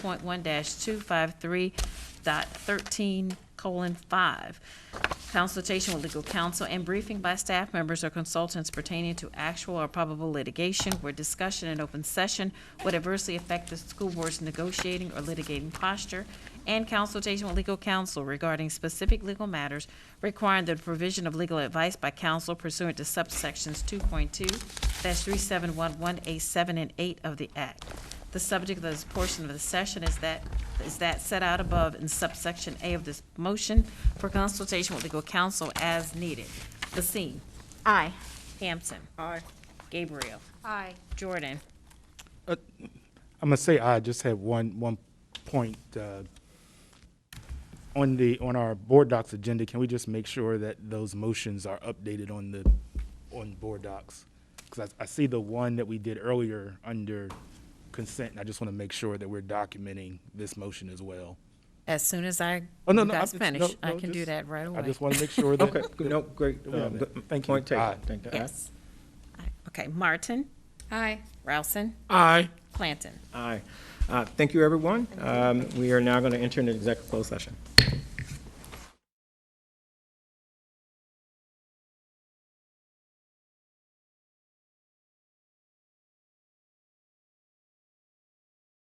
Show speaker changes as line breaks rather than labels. point one two five three dot thirteen colon five. Consultation with legal counsel and briefing by staff members or consultants pertaining to actual or probable litigation where discussion in open session would adversely affect the school board's negotiating or litigating posture, and consultation with legal counsel regarding specific legal matters requiring the provision of legal advice by counsel pursuant to subsections two point two three seven one one A seven and eight of the Act. The subject of this portion of the session is that, is that set out above in subsection A of this motion for consultation with legal counsel as needed. Basine?
Aye.
Hampson? Aye. Gabriel?
Aye.
Jordan?
I'm gonna say I just had one, one point, uh, on the, on our board docs agenda, can we just make sure that those motions are updated on the, on board docs? Because I, I see the one that we did earlier under consent, and I just want to make sure that we're documenting this motion as well.
As soon as I,
Oh, no,
you
no, I-
guys
no,
finish, I
no,
can do
just-
that right away.
I just want to make sure that.
Okay, good, no, great.
Yeah,
uh,
but-
good
thank you.
Point
Aye.
taken. Thank you.
Yes. Aye. Okay, Martin?
Aye.
Rousen?
Aye.
Planton?
Aye. Uh, Thank you, everyone. Um, We are now going to enter into executive closed session.